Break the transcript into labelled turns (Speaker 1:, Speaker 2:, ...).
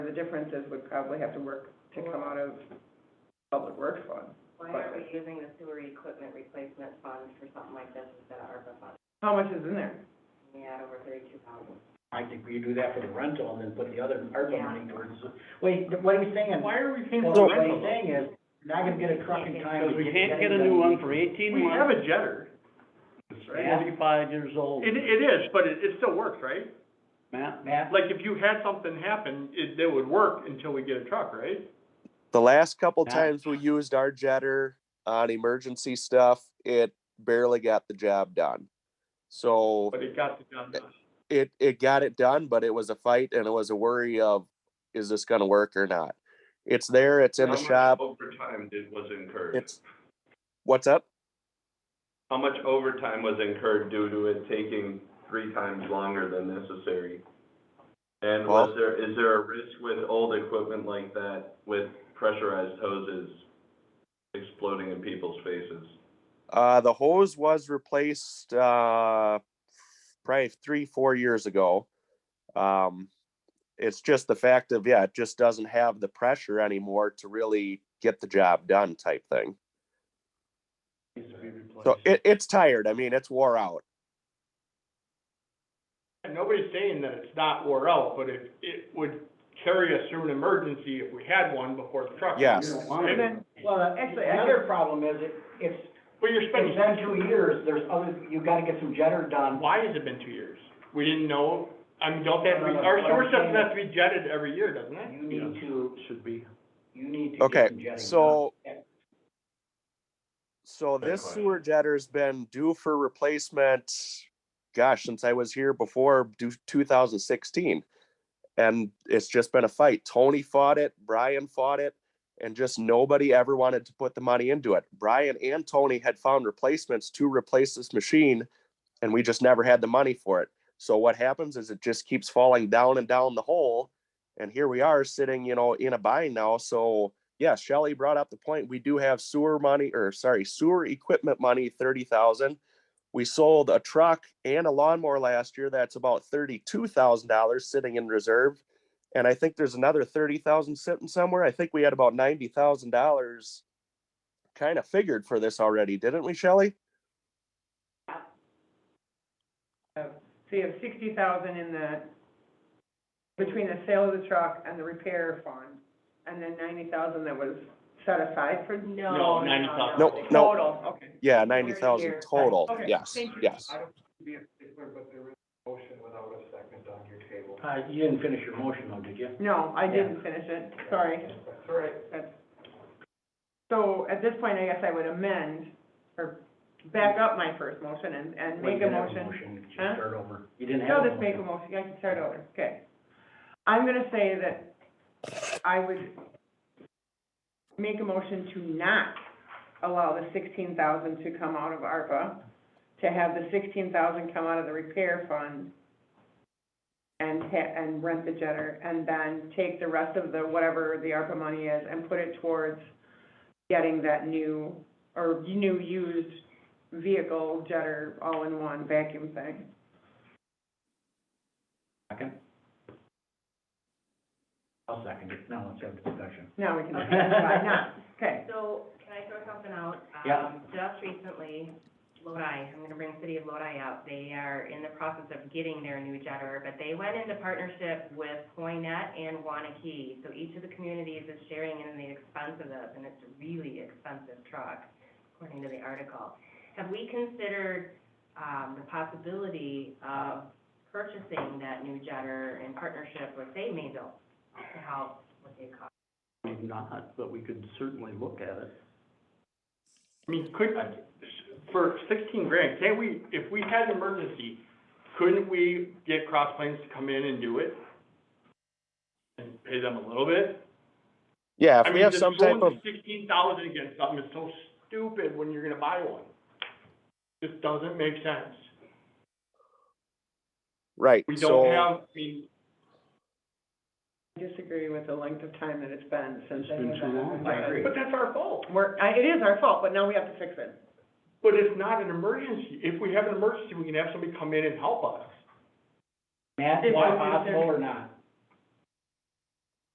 Speaker 1: the differences would probably have to work to come out of public works fund.
Speaker 2: Why aren't we using the sewer equipment replacement fund for something like this instead of ARPA fund?
Speaker 1: How much is in there?
Speaker 2: We had over thirty-two thousand.
Speaker 3: I think we do that for the rental and then put the other ARPA
Speaker 2: Yeah.
Speaker 3: money towards, wait, what he's saying,
Speaker 4: Why are we paying
Speaker 3: well,
Speaker 4: for
Speaker 3: what he's
Speaker 4: rental?
Speaker 3: saying is, you're not gonna get a truck in time.
Speaker 4: Because
Speaker 3: to
Speaker 4: we
Speaker 3: get
Speaker 4: can't
Speaker 3: that
Speaker 4: get a
Speaker 3: done.
Speaker 4: new one for eighteen
Speaker 5: We have
Speaker 4: months,
Speaker 5: a jetter. Right?
Speaker 4: seventy-five years old,
Speaker 5: It, it is, but it, it still works, right?
Speaker 4: Matt.
Speaker 3: Matt,
Speaker 5: Like, if you had something happen, it, it would work until we get a truck, right?
Speaker 6: The last couple
Speaker 4: Yeah.
Speaker 6: times we used our jetter on emergency stuff, it barely got the job done. So
Speaker 5: But it got the job done.
Speaker 6: it, it got it done, but it was a fight and it was a worry of, is this gonna work or not? It's there, it's in the
Speaker 7: How
Speaker 6: shop,
Speaker 7: much overtime did, was incurred?
Speaker 6: it's, what's up?
Speaker 7: How much overtime was incurred due to it taking three times longer than necessary? And was
Speaker 6: Well-
Speaker 7: there, is there a risk with old equipment like that, with pressurized hoses exploding in people's faces?
Speaker 6: Uh, the hose was replaced, uh, probably three, four years ago. Um, it's just the fact of, yeah, it just doesn't have the pressure anymore to really get the job done type thing.
Speaker 4: Needs to be replaced.
Speaker 6: So it, it's tired. I mean, it's wore out.
Speaker 5: And nobody's saying that it's not wore out, but it, it would carry us through an emergency if we had one before the truck.
Speaker 6: Yes.
Speaker 4: You don't want it.
Speaker 5: And then-
Speaker 3: well,
Speaker 1: Actually, I
Speaker 3: another problem is it, it's,
Speaker 5: But you're
Speaker 3: it's
Speaker 5: spending,
Speaker 3: been two years, there's other, you gotta get some jetter done.
Speaker 5: why has it been two years? We didn't know, I mean, don't that, our sewer system has to be jetted every year, doesn't it?
Speaker 3: You need to,
Speaker 4: Should be.
Speaker 3: you need to
Speaker 6: Okay,
Speaker 3: get some jetting done.
Speaker 6: so-
Speaker 3: Yeah.
Speaker 6: So
Speaker 7: Fair
Speaker 6: this
Speaker 7: question.
Speaker 6: sewer jetter's been due for replacement, gosh, since I was here before due two thousand sixteen. And it's just been a fight. Tony fought it, Brian fought it, and just nobody ever wanted to put the money into it. Brian and Tony had found replacements to replace this machine, and we just never had the money for it. So what happens is it just keeps falling down and down the hole. And here we are sitting, you know, in a bind now, so yeah, Shelley brought up the point, we do have sewer money, or sorry, sewer equipment money, thirty thousand. We sold a truck and a lawnmower last year, that's about thirty-two thousand dollars sitting in reserve. And I think there's another thirty thousand sitting somewhere, I think we had about ninety thousand dollars kind of figured for this already, didn't we, Shelley?
Speaker 1: So you have sixty thousand in the, between the sale of the truck and the repair fund, and then ninety thousand that was set aside for.
Speaker 5: No,
Speaker 2: No, no,
Speaker 5: 90,000.
Speaker 2: no,
Speaker 6: Nope,
Speaker 2: no.
Speaker 6: nope.
Speaker 1: Total, okay.
Speaker 6: Yeah, ninety
Speaker 2: Year.
Speaker 6: thousand total,
Speaker 1: Okay,
Speaker 6: yes,
Speaker 1: thank you.
Speaker 6: yes.
Speaker 4: I don't be a stickler, but there is a motion without a second on your table.
Speaker 3: Uh, you didn't finish your motion though, did you?
Speaker 1: No, I didn't finish it, sorry.
Speaker 4: That's all right.
Speaker 1: That's- So at this point, I guess I would amend or back up my first motion and, and
Speaker 3: Well, you
Speaker 1: make a
Speaker 3: didn't have
Speaker 1: motion.
Speaker 3: Just
Speaker 1: Huh?
Speaker 3: start over. You didn't have
Speaker 1: No,
Speaker 3: a
Speaker 1: just make a
Speaker 3: motion.
Speaker 1: motion, I can start over, okay. I'm gonna say that I would make a motion to not allow the sixteen thousand to come out of ARPA, to have the sixteen thousand come out of the repair fund and ha- and rent the jetter, and then take the rest of the, whatever the ARPA money is, and put it towards getting that new, or new used vehicle jetter all-in-one vacuum thing.
Speaker 3: Second? I'll second it, now let's have a discussion.
Speaker 1: No, we can, why not? Okay,
Speaker 2: So, can I throw something out?
Speaker 3: Yeah.
Speaker 2: Um, Just recently, Lodi, I'm gonna bring City of Lodi out, they are in the process of getting their new jetter, but they went into partnership with Hoynet and Wanakee. So each of the communities is sharing in the expense of this, and it's a really expensive truck, according to the article. Have we considered, um, the possibility of purchasing that new jetter in partnership with, say, Mayville, to help with the cost?
Speaker 4: Maybe not, but we could certainly look at it.
Speaker 5: I mean, could, for sixteen grand, can't we, if we had an emergency, couldn't we get Cross Plains to come in and do it? And pay them a little bit?
Speaker 6: Yeah,
Speaker 5: I
Speaker 6: if we
Speaker 5: mean,
Speaker 6: have
Speaker 5: just
Speaker 6: some type of,
Speaker 5: throwing Sixteen thousand against something is so stupid when you're gonna buy one. Just doesn't make sense.
Speaker 6: right,
Speaker 5: We
Speaker 6: so.
Speaker 5: don't have, I mean,
Speaker 1: I disagree with the length of time that it's been since
Speaker 4: It's
Speaker 1: they
Speaker 4: been
Speaker 1: have
Speaker 4: too
Speaker 1: that.
Speaker 4: long.
Speaker 1: Like,
Speaker 3: I agree.
Speaker 5: but that's our fault.
Speaker 1: We're, I, it is our fault, but now we have to fix it.
Speaker 5: But it's not an emergency. If we have an emergency, we can have somebody come in and help us.
Speaker 3: Matt,
Speaker 1: Is it
Speaker 3: is that possible
Speaker 1: considered-
Speaker 3: or not?